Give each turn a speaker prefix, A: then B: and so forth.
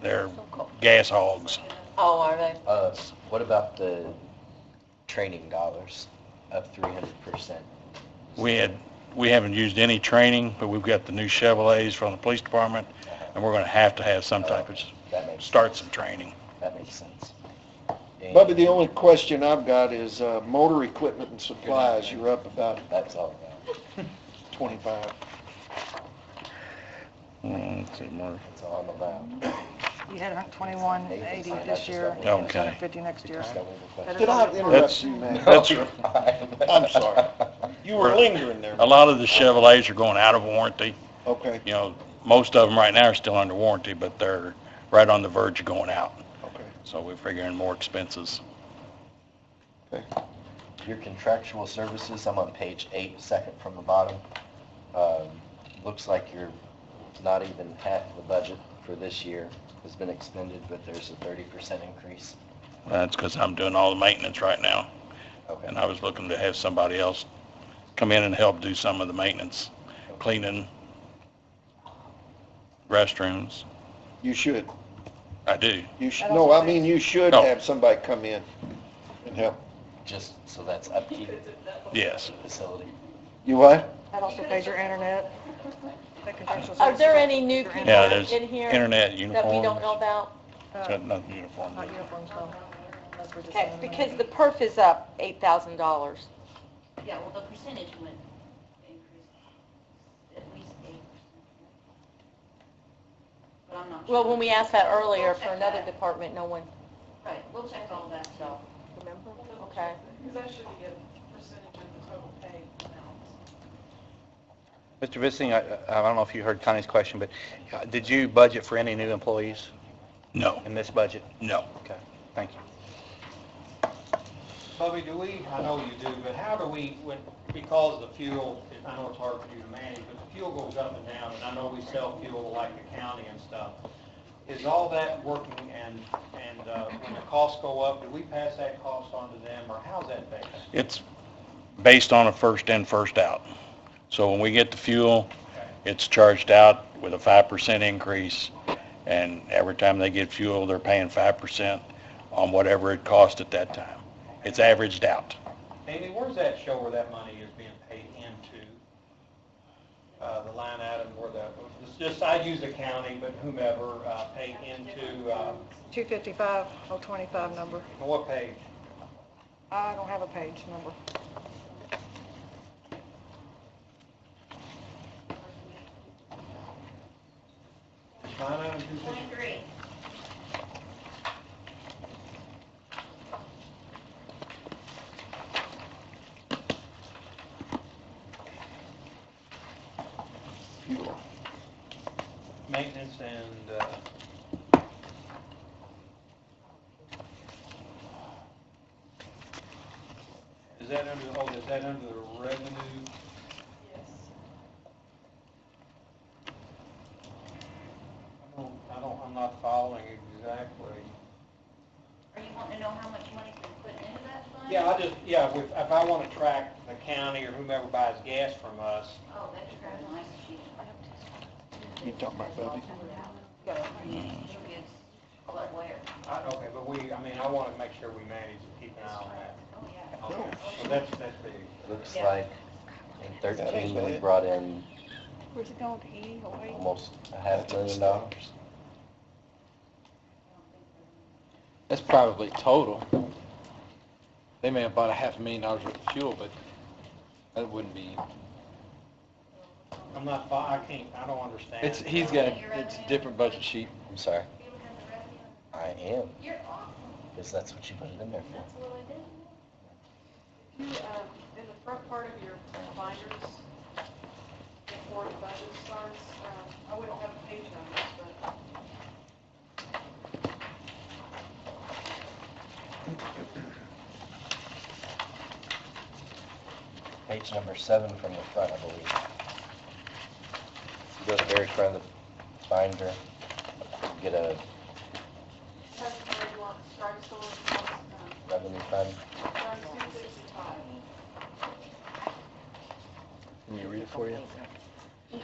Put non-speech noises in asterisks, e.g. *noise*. A: They're gas hogs.
B: Oh, are they?
C: Uh, what about the training dollars up three hundred percent?
A: We had, we haven't used any training, but we've got the new Chevrolets from the police department, and we're gonna have to have some type of,
C: That makes,
A: start some training.
C: that makes sense. And
D: Bubby, the only question I've got is, uh, motor equipment and supplies, you're up about
C: That's all about,
D: twenty-five.
A: Mm, let's see, Mark.
C: that's all I'm about.
E: You had about 2180 this year,
A: Okay.
E: 50 next year.
C: Just got one more question.
D: Did I
A: That's-
D: interrupt
F: *laughs*
D: you, man?
A: that's-
C: No, you're fine.
D: I'm sorry. You were lingering there.
A: A lot of the Chevrolets are going out of warranty.
D: Okay,
A: You know, most of them right now are still under warranty, but they're right on the verge of going out.
D: okay.
A: So we're figuring more expenses.
C: *laughs* Your contractual services, I'm on page eight, second from the bottom. Um, Looks like you're not even half the budget for this year has been expended, but there's a thirty percent increase.
A: That's because I'm doing all the maintenance right now,
C: Okay.
A: and I was looking to have somebody else come in and help do some of the maintenance, cleaning restrooms.
D: You should,
A: I do.
D: you should,
E: I don't
D: no, I
E: think-
D: mean, you should
A: No.
D: have somebody come in and help.
C: Just, so that's upkeep of
A: Yes.
C: the facility.
D: You what?
E: That also pays your internet. that contractual
B: Are there
E: services,
B: any new
E: Yeah,
B: people
A: Yeah, there's
B: in here
A: internet
B: that we don't know
A: uniforms.
B: about?
E: uh,
A: Got Nothing uniform.
E: Not uniforms, no. That's what we're just
B: Okay,
E: saying.
B: because the perf is up eight thousand dollars.
G: Yeah, well, the percentage would increase at least eight percent. But I'm not sure.
B: Well, when we asked that earlier for another department, no one
G: Right, we'll check all that, so.
B: remembered, okay.
H: Because that should be a percentage of the total pay amount.
I: Mr. Vissing, I I don't know if you heard Connie's question, but uh, did you budget for any new employees
A: No,
I: in this budget?
A: no.
I: Thank you.
J: Bubby, do we, I know you do, but how do we, when, because the fuel, I know it's hard for you to manage, but the fuel goes up and down, and I know we sell fuel like the county and stuff. Is all that working and, and uh, when the costs go up, do we pass that cost on to them, or how's that based?
A: It's based on a first in, first out. So when we get the fuel, it's charged out with a 5% increase, and every time they get fuel, they're paying 5% on whatever it cost at that time. It's averaged out.
J: Amy, where's that show where that money is being paid into? Uh, the line item where that, it's just, I'd use the county, but whomever, uh, paid into, uh,
E: 255, 025 number.
J: what page?
E: oh, I don't have a page number.
J: Line item two fifty?
G: Twenty-three.
J: maintenance and, uh, is that under, oh, is that under the revenue? I don't, I don't, I'm not following exactly.
G: Are you wanting to know how much money's been put into that fund?
J: Yeah, I just, yeah, if, if I want to track the county or whomever buys gas from us,
G: Oh, that's very nice. She-
D: You talking about Bubby?
G: She'll be a lot aware.
J: I, okay, but we, I mean, I want to make sure we manage to keep an eye on that.
G: Oh, yeah.
J: Okay, so that's, that's big.
C: Looks
G: Yeah.
C: like in thirteen, we brought in
E: Where's it going, E,
C: almost a half million dollars.
F: That's probably total. They may have bought a half a million dollars worth of fuel, but that wouldn't be,
J: I'm not, fo- I can't, I don't understand.
F: it's, he's got, a- it's a different budget sheet.
C: I'm sorry,
G: You don't have the revenue.
C: I am,
G: You're awesome.
C: because that's what you put it in there for.
G: That's what I did.
H: You, um, in the front part of your binders, before the budget starts, um, I wouldn't have page numbers, but
C: Page number seven from the front, I believe. Go to the very front of the binder, get a
H: that's where you want, starts the list, um,
C: revenue fund.
H: starts two sixty-five.
F: Can you read it for you?